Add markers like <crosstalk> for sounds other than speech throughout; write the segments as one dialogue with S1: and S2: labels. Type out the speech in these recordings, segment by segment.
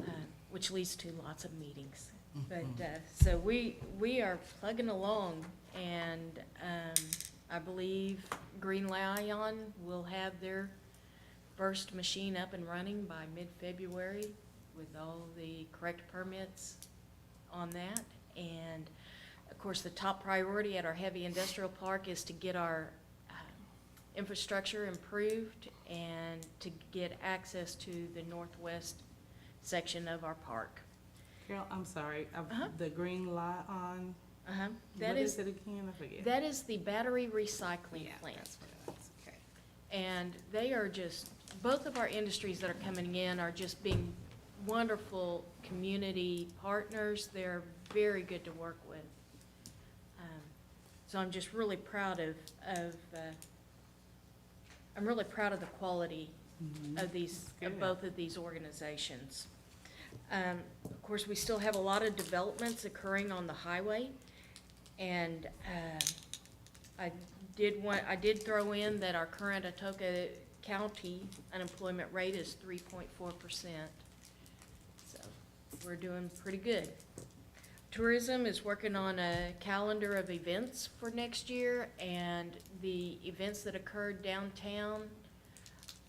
S1: Uh, which leads to lots of meetings. But, uh, so we, we are plugging along, and um, I believe Green Lion will have their first machine up and running by mid-February with all the correct permits on that. And of course, the top priority at our heavy industrial park is to get our uh, infrastructure improved and to get access to the northwest section of our park.
S2: Carol, I'm sorry, I've-
S1: Uh-huh.
S2: the green light on,
S1: Uh-huh.
S2: what
S1: That
S2: is
S1: is,
S2: it again? I forget.
S1: that is the battery recycling
S2: Yeah,
S1: plant.
S2: that's what it is. Okay.
S1: And they are just, both of our industries that are coming in are just being wonderful community partners. They're very good to work with. Um, So I'm just really proud of, of, uh, I'm really proud of the quality of Mm-hmm. these, of
S2: Good.
S1: both of these organizations. Um, Of course, we still have a lot of developments occurring on the highway. And um, I did want, I did throw in that our current Atoka County unemployment rate is three point four percent. So we're doing pretty good. Tourism is working on a calendar of events for next year, and the events that occurred downtown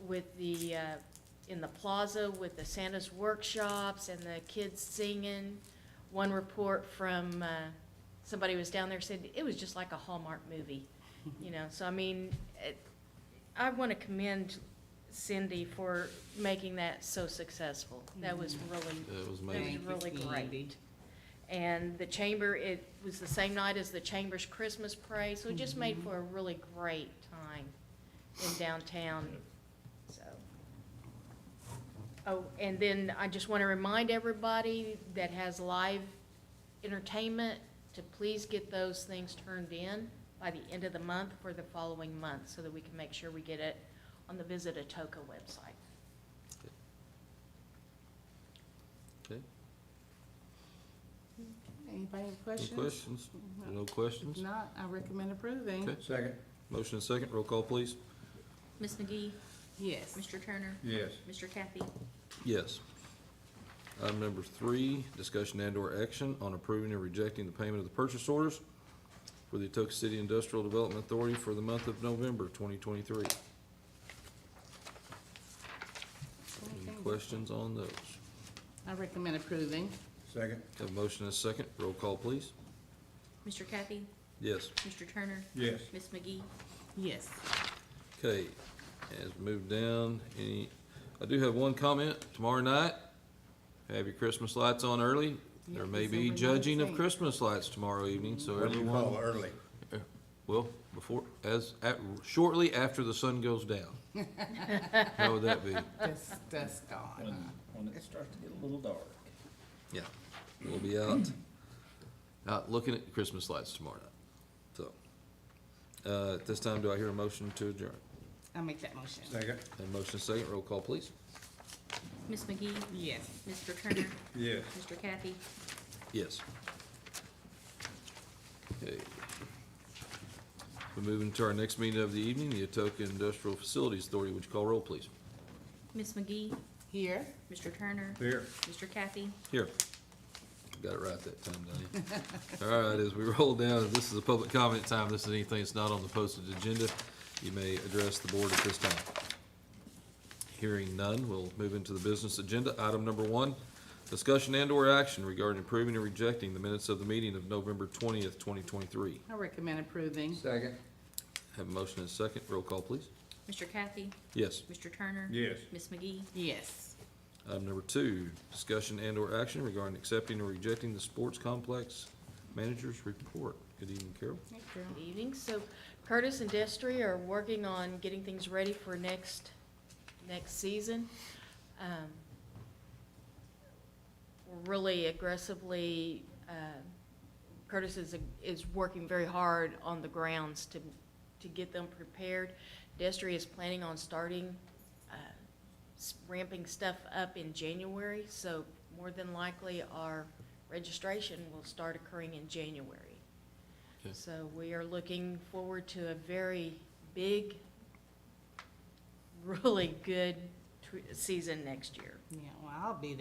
S1: with the, uh, in the plaza with the Santa's workshops and the kids singing. One report from, uh, somebody was down there said, it was just like a Hallmark movie, you know, so I mean, it, I wanna commend Cindy for making that so successful. That was really
S3: It was
S1: it
S3: amazing.
S1: was
S2: Thank you,
S1: really
S2: Cindy.
S1: great. And the chamber, it was the same night as the chamber's Christmas parade, so it just made for a really great time in downtown, so. Oh, and then I just want to remind everybody that has live entertainment to please get those things turned in by the end of the month for the following month, so that we can make sure we get it on the Visit Atoka website.
S3: Okay,
S2: Anybody have
S3: any
S2: questions?
S3: questions?
S2: No.
S3: No
S2: If
S3: questions?
S2: not, I recommend approving.
S3: Okay.
S4: Second.
S3: Motion and second, roll call, please.
S5: Ms. McGee,
S2: Yes.
S5: Mr. Turner,
S4: Yes.
S5: Mr. Kathy,
S3: Yes. Item number three, discussion and/or action on approving or rejecting the payment of the purchase orders for the Etoka City Industrial Development Authority for the month of November twenty twenty-three. Any
S2: Okay.
S3: questions on those?
S2: I recommend approving.
S4: Second.
S3: Have a motion and second, roll call, please.
S5: Mr. Kathy,
S3: Yes.
S5: Mr. Turner,
S4: Yes.
S5: Ms. McGee,
S2: Yes.
S1: <laughs>
S3: Okay, as we move down, any, I do have one comment, tomorrow night, have your Christmas lights on early. There may be
S2: December
S3: judging of
S2: 19th.
S3: Christmas lights tomorrow evening, so
S4: What do you call
S3: everyone,
S4: early?
S3: well, before, as, at, shortly after the sun goes down. How would that be?
S2: That's, that's gone.
S4: When it starts to get a little dark.
S3: Yeah, we'll be out, out looking at Christmas lights tomorrow night, so. Uh, at this time, do I hear a motion to adjourn?
S2: I'll make that motion.
S4: Second.
S3: And motion second, roll call please.
S5: Ms. McGee,
S2: Yes.
S5: Mr. Turner,
S4: Yes.
S5: Mr. Kathy,
S3: Yes. Okay. We're moving to our next meeting of the evening, the Atoka Industrial Facilities Authority. Would you call roll, please?
S5: Ms. McGee,
S2: Here?
S5: Mr. Turner,
S4: Here.
S5: Mr. Kathy,
S3: Here. Got it right that time, Donnie. <laughs> All right, as we roll down, this is a public comment time. This is anything that's not on the posted agenda. You may address the board at this time. Hearing none, we'll move into the business agenda. Item number one, discussion and/or action regarding approving or rejecting the minutes of the meeting of November twentieth, twenty twenty-three.
S2: I recommend approving.
S4: Second.
S3: Have a motion and a second. Roll call, please.
S5: Mr. Kathy,
S3: Yes.
S5: Mr. Turner.
S4: Yes.
S5: Ms. McGee,
S2: Yes.
S3: Item number two, discussion and/or action regarding accepting or rejecting the sports complex manager's report. Good evening, Carol.
S2: Hey, Carol.
S1: Good evening. So Curtis and Destry are working on getting things ready for next, next season. Um, we're Really aggressively, uh, Curtis is, is working very hard on the grounds to, to get them prepared. Destry is planning on starting, uh, s- ramping stuff up in January, so more than likely our registration will start occurring in January.
S3: Okay.
S1: So we are looking forward to a very big, <laughs> really good tw- season next year.
S2: Yeah, well, I'll be there.